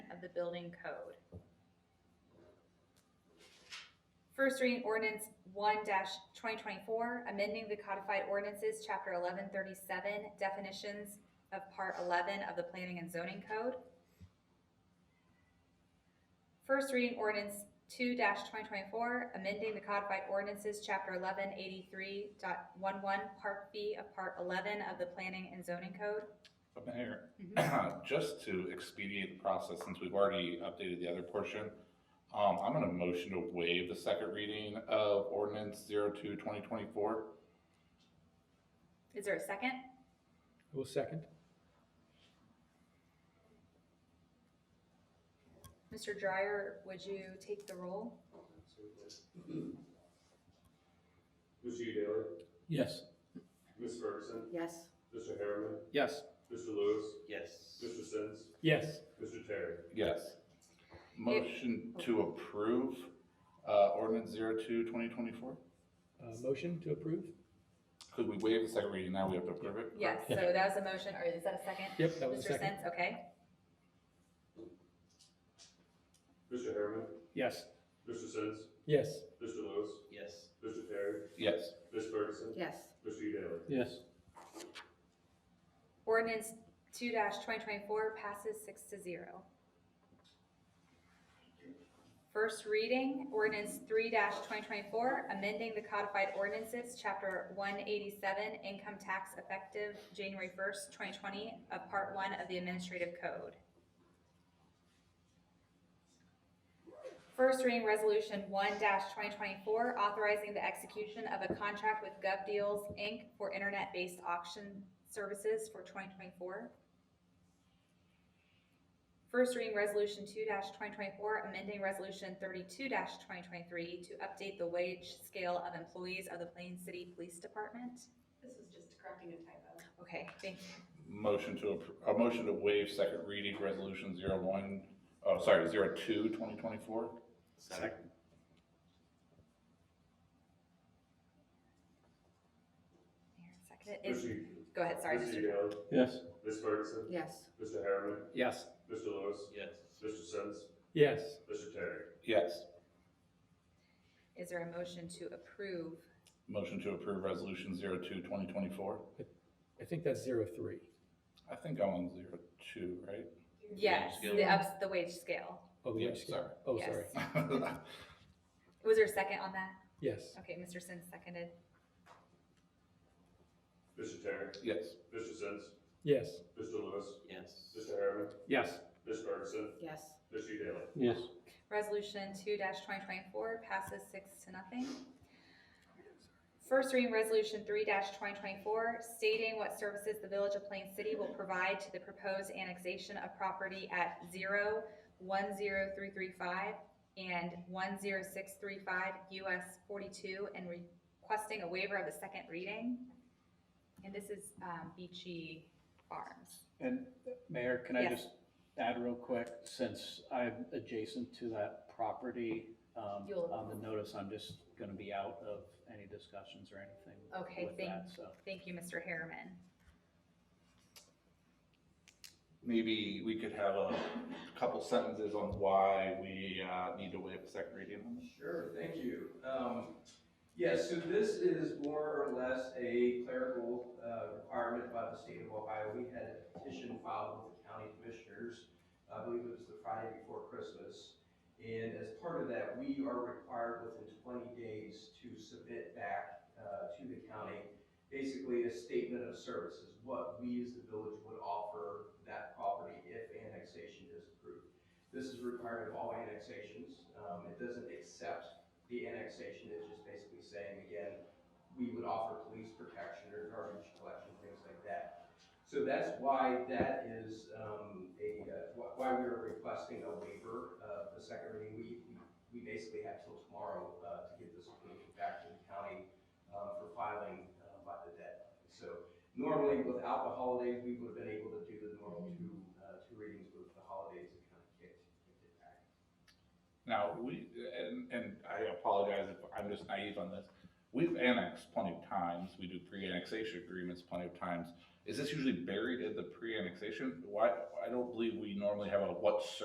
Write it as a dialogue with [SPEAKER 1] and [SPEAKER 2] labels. [SPEAKER 1] of the building code. First reading ordinance one twenty twenty-four, amending the codified ordinances, chapter eleven thirty-seven, definitions of part eleven of the planning and zoning code. First reading ordinance two twenty twenty-four, amending the codified ordinances, chapter eleven eighty-three part B of part eleven of the planning and zoning code.
[SPEAKER 2] But Mayor, just to expedite the process, since we've already updated the other portion, um, I'm gonna motion to waive the second reading of ordinance 02-2024.
[SPEAKER 1] Is there a second?
[SPEAKER 3] I will second.
[SPEAKER 1] Mr. Dryer, would you take the roll?
[SPEAKER 4] Mr. Daly,
[SPEAKER 3] Yes.
[SPEAKER 4] Ms. Ferguson,
[SPEAKER 5] Yes.
[SPEAKER 4] Mr. Harriman,
[SPEAKER 3] Yes.
[SPEAKER 4] Mr. Lewis,
[SPEAKER 6] Yes.
[SPEAKER 4] Mr. Sins,
[SPEAKER 3] Yes.
[SPEAKER 4] Mr. Terry.
[SPEAKER 2] Yes. Motion to approve, uh, ordinance 02-2024.
[SPEAKER 3] Uh, motion to approve?
[SPEAKER 2] Could we waive the second reading, now we have to approve it?
[SPEAKER 1] Yes, so that was a motion, or is that a second?
[SPEAKER 3] Yep, that was a
[SPEAKER 1] Mr.
[SPEAKER 3] second.
[SPEAKER 1] Sins, okay.
[SPEAKER 4] Mr. Harriman,
[SPEAKER 3] Yes.
[SPEAKER 4] Mr. Sins,
[SPEAKER 3] Yes.
[SPEAKER 4] Mr. Lewis,
[SPEAKER 6] Yes.
[SPEAKER 4] Mr. Terry,
[SPEAKER 2] Yes.
[SPEAKER 4] Ms. Ferguson,
[SPEAKER 5] Yes.
[SPEAKER 4] Mr. Daly.
[SPEAKER 3] Yes.
[SPEAKER 1] Ordinance two twenty twenty-four passes six to zero. First reading, ordinance three twenty twenty-four, amending the codified ordinances, chapter one eighty-seven, income tax effective January first, twenty twenty, of part one of the administrative code. First reading resolution one twenty twenty-four, authorizing the execution of a contract with Gov Deals Inc. for internet-based auction services for twenty twenty-four. First reading resolution two twenty twenty-four, amending resolution thirty-two twenty twenty-three to update the wage scale of employees of the Plain City Police Department.
[SPEAKER 7] This is just correcting a typo.
[SPEAKER 1] Okay, thank you.
[SPEAKER 2] Motion to, appro- a motion to waive second reading, resolution 01. oh, sorry, 02-2024.
[SPEAKER 6] Second.
[SPEAKER 1] Mayor, second it. Is-
[SPEAKER 4] Mr.
[SPEAKER 1] Go ahead, sorry.
[SPEAKER 4] Mr.
[SPEAKER 1] Mr.
[SPEAKER 4] Daly,
[SPEAKER 3] Yes.
[SPEAKER 4] Ms. Ferguson,
[SPEAKER 5] Yes.
[SPEAKER 4] Mr. Harriman,
[SPEAKER 3] Yes.
[SPEAKER 4] Mr. Lewis,
[SPEAKER 6] Yes.
[SPEAKER 4] Mr. Sins,
[SPEAKER 3] Yes.
[SPEAKER 4] Mr. Terry.
[SPEAKER 2] Yes.
[SPEAKER 1] Is there a motion to approve?
[SPEAKER 2] Motion to approve resolution 02-2024.
[SPEAKER 3] I think that's zero three.
[SPEAKER 2] I think I'm on 02, right?
[SPEAKER 1] Yes,
[SPEAKER 6] scale.
[SPEAKER 1] the ups, the wage scale.
[SPEAKER 3] Oh, the
[SPEAKER 2] Yeah,
[SPEAKER 3] wage scale.
[SPEAKER 2] sorry.
[SPEAKER 3] Oh,
[SPEAKER 1] Yes.
[SPEAKER 3] sorry.
[SPEAKER 1] Was there a second on that?
[SPEAKER 3] Yes.
[SPEAKER 1] Okay, Mr. Sin seconded.
[SPEAKER 4] Mr. Terry,
[SPEAKER 2] Yes.
[SPEAKER 4] Mr. Sins,
[SPEAKER 3] Yes.
[SPEAKER 4] Mr. Lewis,
[SPEAKER 6] Yes.
[SPEAKER 4] Mr. Harriman,
[SPEAKER 3] Yes.
[SPEAKER 4] Ms. Ferguson,
[SPEAKER 5] Yes.
[SPEAKER 4] Mr. Daly.
[SPEAKER 3] Yes.
[SPEAKER 1] Resolution two twenty twenty-four passes six to nothing. First reading resolution three twenty twenty-four stating what services the Village of Plain City will provide to the proposed annexation of property at zero one zero three three five and one zero six three five US forty-two and requesting a waiver of the second reading. And this is, um, Beachy Farms.
[SPEAKER 8] And Mayor, can I
[SPEAKER 1] Yes.
[SPEAKER 8] just add real quick, since I'm adjacent to that property, um,
[SPEAKER 1] You'll-
[SPEAKER 8] on the notice, I'm just gonna be out of any discussions or anything
[SPEAKER 1] Okay,
[SPEAKER 8] with
[SPEAKER 1] thank,
[SPEAKER 8] that, so.
[SPEAKER 1] thank you, Mr. Harriman.
[SPEAKER 2] Maybe we could have a couple sentences on why we uh, need to waive the second reading on this.
[SPEAKER 9] Sure, thank you. Um, Yes, so this is more or less a clerical uh, requirement by the state of Ohio. We had a petition filed with the county commissioners, I believe it was the Friday before Christmas. And as part of that, we are required within 20 days to submit back uh, to the county, basically a statement of services, what we as the village would offer that property if annexation is approved. This is required of all annexations. Um, it doesn't accept the annexation, it's just basically saying, again, we would offer police protection or garbage collection, things like that. So that's why that is, um, a, uh, wh- why we are requesting a waiver of the second reading. We, we basically have till tomorrow, uh, to get this approved back to the county, uh, for filing, uh, by the deadline. So normally without the holidays, we would have been able to do the normal two, uh, two readings with the holidays, it kind of kicked, kicked it back.
[SPEAKER 2] Now, we, and, and I apologize if I'm just naive on this. We've annexed plenty of times. We do pre-annexation agreements plenty of times. Is this usually buried in the pre-annexation? Why, I don't believe we normally have a what